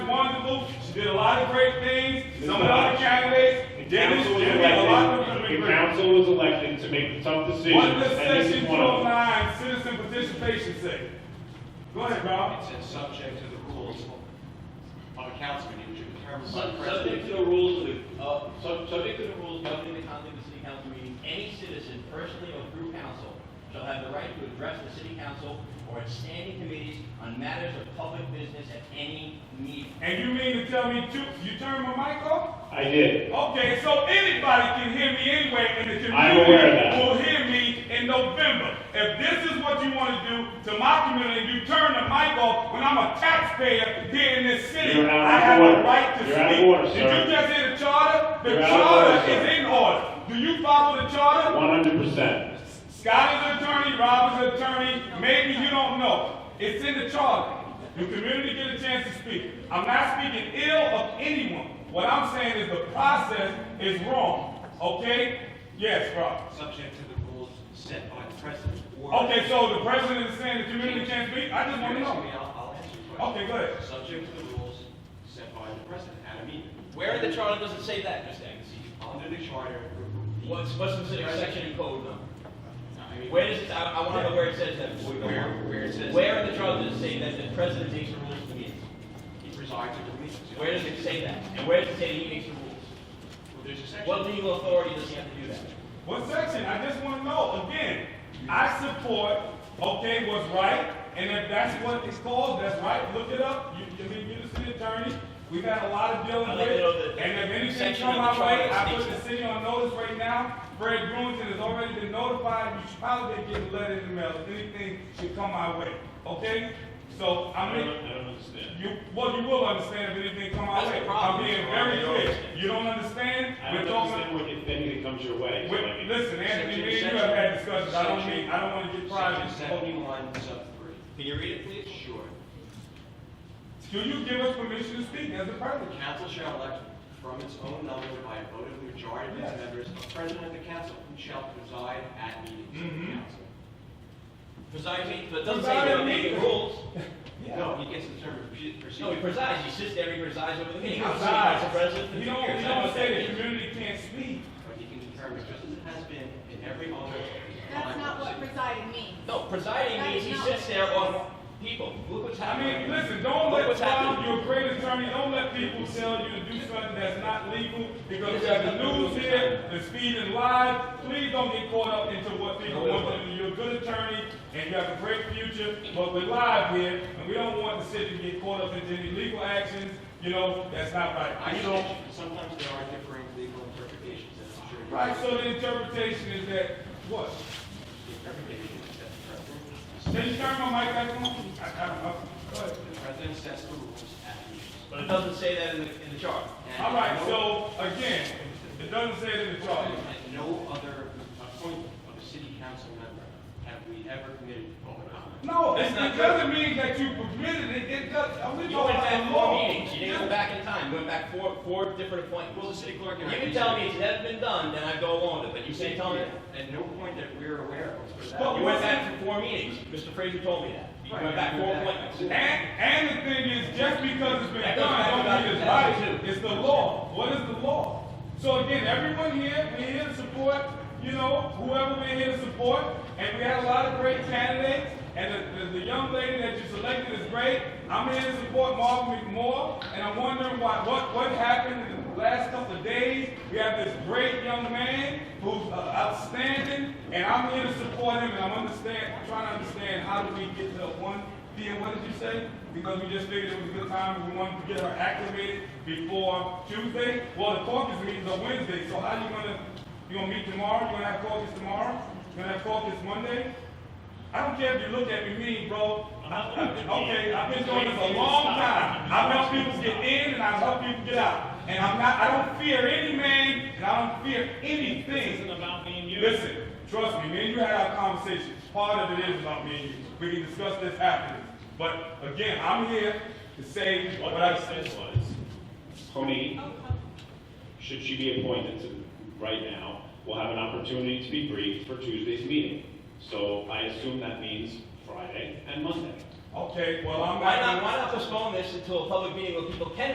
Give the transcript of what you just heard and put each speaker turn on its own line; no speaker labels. did a lot of great things, some of the other candidates, Dennis,
Council was
Jimmy, a lot of them could have
elected,
been
the
great.
council was elected to make the tough decisions,
What does
and this
section
is one of
209
them.
citizen participation say? Go ahead, Rob.
It says subject to the rules of a council meeting, which are determined by the
Subject
president.
to the rules of the, uh, sub- subject to the rules governing the conduct of the city council meeting, any citizen personally or through council shall have the right to address the city council or its standing committees on matters of public business at any meeting.
And you mean to tell me, two- you turned my mic off?
I did.
Okay, so anybody can hear me anyway, and the
I'm aware of
community
that.
will hear me in November. If this is what you want to do to my community, you turn the mic off when I'm a taxpayer here in this city.
You're out of
I have
order.
the right to
You're out of
speak.
order,
Did
sir.
you just hear the charter? The
You're out of
charter
order, sir.
is in order. Do you follow the charter?
One hundred percent.
Scott is an attorney, Rob is an attorney, maybe you don't know. It's in the charter. The community get a chance to speak. I'm not speaking ill of anyone. What I'm saying is the process is wrong, okay? Yes, Rob.
Subject to the rules set by the president or.
Okay, so the president is saying the community can't speak? I just
You're
want to
asking
know.
me, I'll, I'll answer your question.
Okay, go ahead.
Subject to the rules set by the president at a meeting.
Where in the charter does it say that, Mr. Agassi?
Under the charter.
What's, what's the specific section and code number? Where does, it- I, I wanna know where it says that. before we go on.
Where, where it says.
Where in the charter does it say that the president makes the rules for meetings?
He presides at the meetings.
Where does it say that? And where does it say he makes the rules?
Well, There's a section.
What legal authority does he have to do that?
What section? I just want to know. Again, I support, okay, what's right, and if that's what it's called, that's right, look it up. You, I mean, you're the city attorney, we've had a lot of dealing
I'd
with
like to know
it.
the-
And if anything
section
come
of the
my way,
charter
I put
states
the city on notice right now. Fred Brewington has already been notified, you should probably get a letter in the mail if anything should come my way, okay? So,
I
I
don't
mean,
I don't understand.
you, well, you will understand if anything come my
That's
way. I'm
the problem,
being
that's why I
very
don't
clear.
understand.
You don't understand?
I
We're
don't
talking.
understand what if anything comes your way. so I
Wait,
mean-
listen, Anthony, me and you have had discussions, I don't mean, I don't wanna get private.
Section seventy-one, sub three.
Can you read it, please?
Sure.
Do you give us permission to speak as a
The
president?
council shall elect from its own number by a vote of the majority of its
Yes.
members, a president of the council who shall preside at meetings of the
Mhm.
council.
Presides, he- but it doesn't say
Preside
he'll
at
make the
meetings.
rules.
No, he gets to determine proce-
No, he
procedure.
presides, he sits there, he presides over the meeting.
He
I've seen
presides.
him as a president for
You
two
don't,
years.
you
I know
don't
what
say
that
the
means.
community can't speak.
But he can determine, just as it has been in every other.
That's not what presiding means.
No, presiding
That
means he
is not
sits
what
there
it
on
is.
people. Look what's
I
happening.
mean, listen, don't
Look
let,
what's
Bob,
happening.
you're a great attorney, don't let people tell you to do something that's not legal, because we have the news here, the speed and lies, please don't get caught up into what people want you to do. You're a good attorney, and you have a great future, but we're live here, and we don't want the city to get caught up into any legal actions, you know, that's not right.
I
We
don't,
don't,
sometimes there are differing legal interpretations, that's for sure.
Right, so the interpretation is that, what?
The interpretation is that the president,
Can you turn my mic back on? I, I, I, go ahead.
the president sets the rules at meetings.
But it doesn't say that in the, in the charter.
And
All right,
no-
so, again, it doesn't say it in the charter.
At no other appointment of a city council member have we ever committed open comment.
No, it
That's not
it doesn't mean that you permitted it, it does, uh, we
You
go
went
by
back
the
four
law.
meetings, you didn't go back in time, you went back four, four different
Well, the
appointments.
city clerk.
If you can tell me it's never been done, then I go along with it, but you say tell me that.
At no point that we're aware of. let's put it that
Well,
way.
You went back for four meetings. Mr. Fraser told me that. You went back four appointments.
And, and the thing is, just because it's been
That goes
done,
back
don't
about
mean it's
2002.
right, it's the law, what is the law? So again, everyone here, we're here to support, you know, whoever we're here to support, and we had a lot of great candidates, and the, the, the young lady that you selected is great, I'm here to support Marvin McMoore, and I'm wondering why, what, what happened in the last couple of days? We have this great young man who's uh, outstanding, and I'm here to support him, and I'm understand, trying to understand how do we get to one Dean, what did you say? Because we just figured it was a good time, we wanted to get her acclimated before Tuesday? Well, the caucus meetings are Wednesday, so how you gonna, you gonna meet tomorrow, you gonna have caucus tomorrow? You gonna have caucus Monday? I don't care if you look at me mean, bro. I- I- Okay, I've been doing this a long time. I've helped people get in and I've helped people get out. And I'm not, I don't fear any man and I don't fear anything. Listen, trust me, me and you had our conversation. Part of it is about me and you. We can discuss this afterwards. But again, I'm here to say
What
what
I
I
said
said.
was, Tony, should she be appointed to, right now, will have an opportunity to be briefed for Tuesday's meeting. So I assume that means Friday and Monday.
Okay, well, I'm
Why not,
not.
why not postpone this until a public meeting where people can